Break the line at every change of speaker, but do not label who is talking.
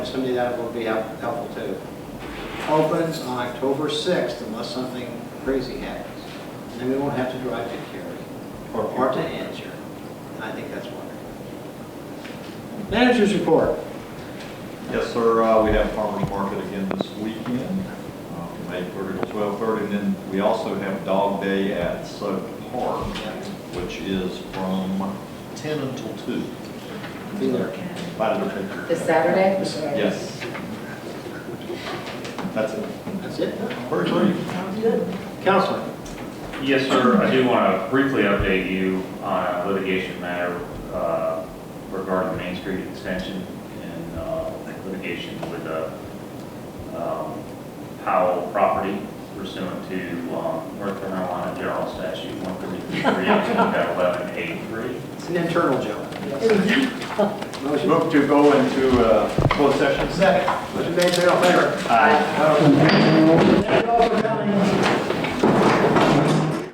proximity, that will be help- helpful too. Opens on October 6th unless something crazy happens. And then we won't have to drive to Cary or or to Angier. And I think that's wonderful. Managers report.
Yes, sir, uh, we have farmer's market again this weekend, uh, from eight thirty to twelve thirty, and then we also have dog day at Soap Park, which is from ten until two.
Be there.
By the picture.
This Saturday?
Yes. That's it.
That's it.
Where's Lee?
Counselor.
Yes, sir, I do want to briefly update you on a litigation matter uh, regarding Main Street extension and uh, litigation with uh, um, Powell property pursuant to um, North Carolina General Statute 133
It's an internal joke. Motion
Move to go into uh, closed session. Second.
motion made, say all in favor.
Aye.
Opposed?